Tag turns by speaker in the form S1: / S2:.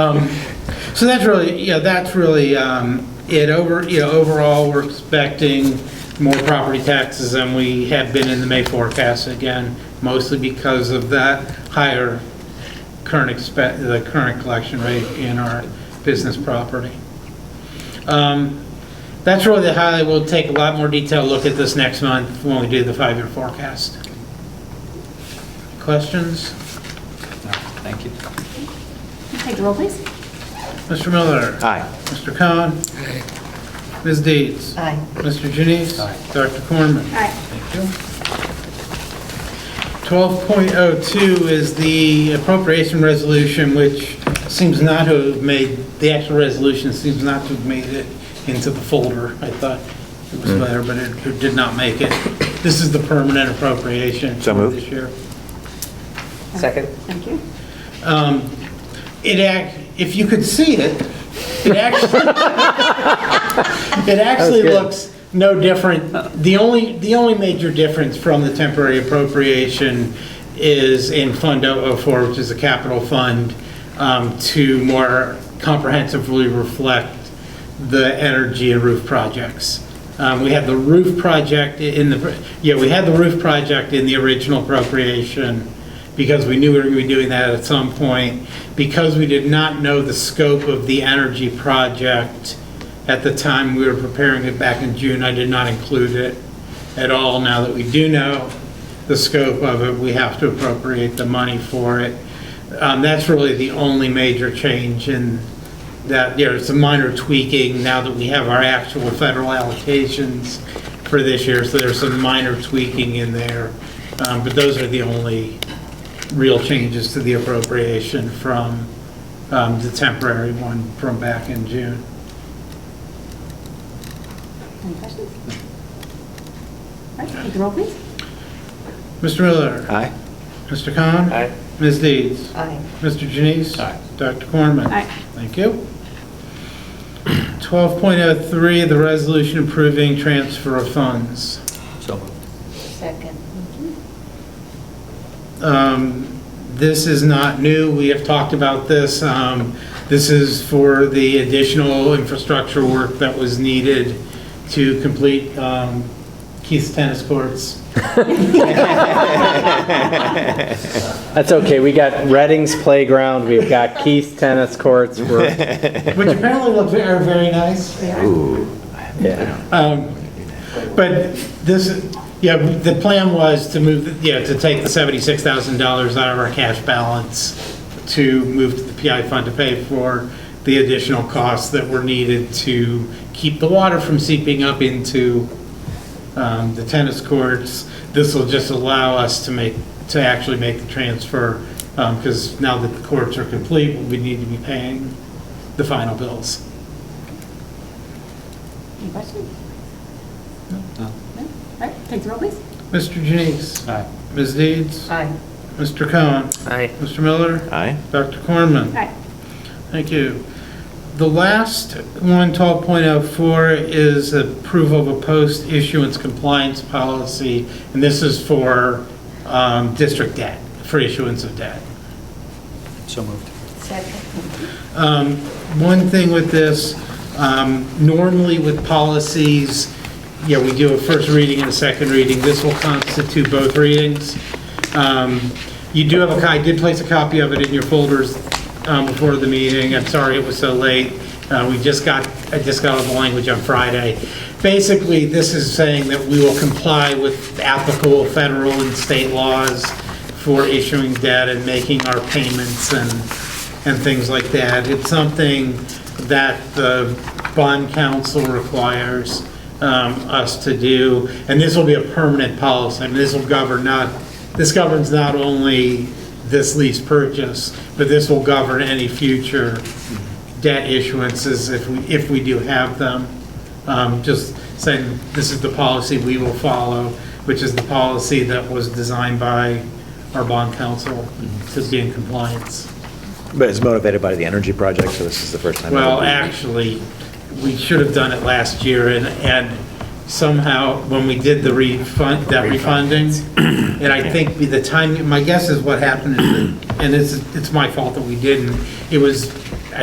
S1: Um, So that's really, yeah, that's really um, it. Over, you know, overall, we're expecting more property taxes than we have been in the May forecast again, mostly because of that higher current expect, the current collection rate in our business property. Um, That's really the highlight. We'll take a lot more detailed look at this next month when we do the five-year forecast. Questions?
S2: Thank you.
S3: Take the roll, please.
S1: Mr. Miller?
S2: Aye.
S1: Mr. Cohen? Ms. Deeds?
S3: Aye.
S1: Mr. Janice?
S2: Aye.
S1: Dr. Cornman?
S3: Aye.
S1: 12.02 is the appropriation resolution, which seems not to have made, the actual resolution seems not to have made it into the folder. I thought it
S2: Hmm.
S1: was there, but it it did not make it. This is the permanent appropriation.
S2: So
S1: for
S2: moved.
S1: This year.
S4: Second.
S3: Thank you.
S1: Um, It act, if you could see it, it actually, it actually looks no different. The only, the only major difference from the temporary appropriation is in Fund 004, which is a capital fund, um, to more comprehensively reflect the energy and roof projects. Um, We had the roof project in the, yeah, we had the roof project in the original appropriation because we knew we were going to be doing that at some point. Because we did not know the scope of the energy project at the time we were preparing it back in June, I did not include it at all. Now that we do know the scope of it, we have to appropriate the money for it. Um, That's really the only major change in that there's some minor tweaking now that we have our actual federal allocations for this year, so there's some minor tweaking in there. Um, But those are the only real changes to the appropriation from um, the temporary one from back in June.
S3: Any questions? All right, take the roll, please.
S1: Mr. Miller?
S2: Aye.
S1: Mr. Khan?
S4: Aye.
S1: Ms. Deeds?
S3: Aye.
S1: Mr. Janice?
S2: Aye.
S1: Dr. Cornman?
S3: Aye.
S1: Thank you. 12.03, the resolution approving transfer of funds.
S2: So moved.
S3: Second.
S1: Um, This is not new, we have talked about this. Um, This is for the additional infrastructure work that was needed to complete um, Keith's tennis courts.
S5: That's okay. We got Redding's playground. We've got Keith's tennis courts. We're,
S1: which apparently look very, very nice.
S5: yeah.
S1: Um, But this, yeah, the plan was to move, yeah, to take the $76,000 out of our cash balance to move to the PI fund to pay for the additional costs that were needed to keep the water from seeping up into um, the tennis courts. This will just allow us to make, to actually make the transfer, because now that the courts are complete, we need to be paying the final bills.
S3: Any questions?
S2: No.
S3: No? All right, take the roll, please.
S1: Mr. Janice?
S2: Aye.
S1: Ms. Deeds?
S3: Aye.
S1: Mr. Cohen?
S4: Aye.
S1: Mr. Miller?
S2: Aye.
S1: Dr. Cornman?
S3: Aye.
S1: Thank you. The last one, 12.04, is approval of a post-issuance compliance policy, and this is for um, district debt, for issuance of debt.
S2: So moved.
S1: Um, One thing with this, um, normally with policies, yeah, we do a first reading and a second reading. This will constitute both readings. Um, You do have a, co- I did place a copy of it in your folders um, before the meeting. I'm sorry it was so late. Uh, We just got, I just got all the language on Friday. Basically, this is saying that we will comply with applicable federal and state laws for issuing debt and making our payments and, and things like that. It's something that the bond council requires um, us to do, and this will be a permanent policy. I mean, this will govern not, this governs not only this lease purchase, but this will govern any future debt issuances if we, if we do have them. Um, Just saying, this is the policy we will follow, which is the policy that was designed by our bond counsel to be in compliance.
S2: But it's motivated by the energy project, so this is the first time.
S1: Well, actually, we should have done it last year, and, and somehow, when we did the refund, that refunding, and I think the time, my guess is what happened, is that- and it's, it's my fault that we didn't, it was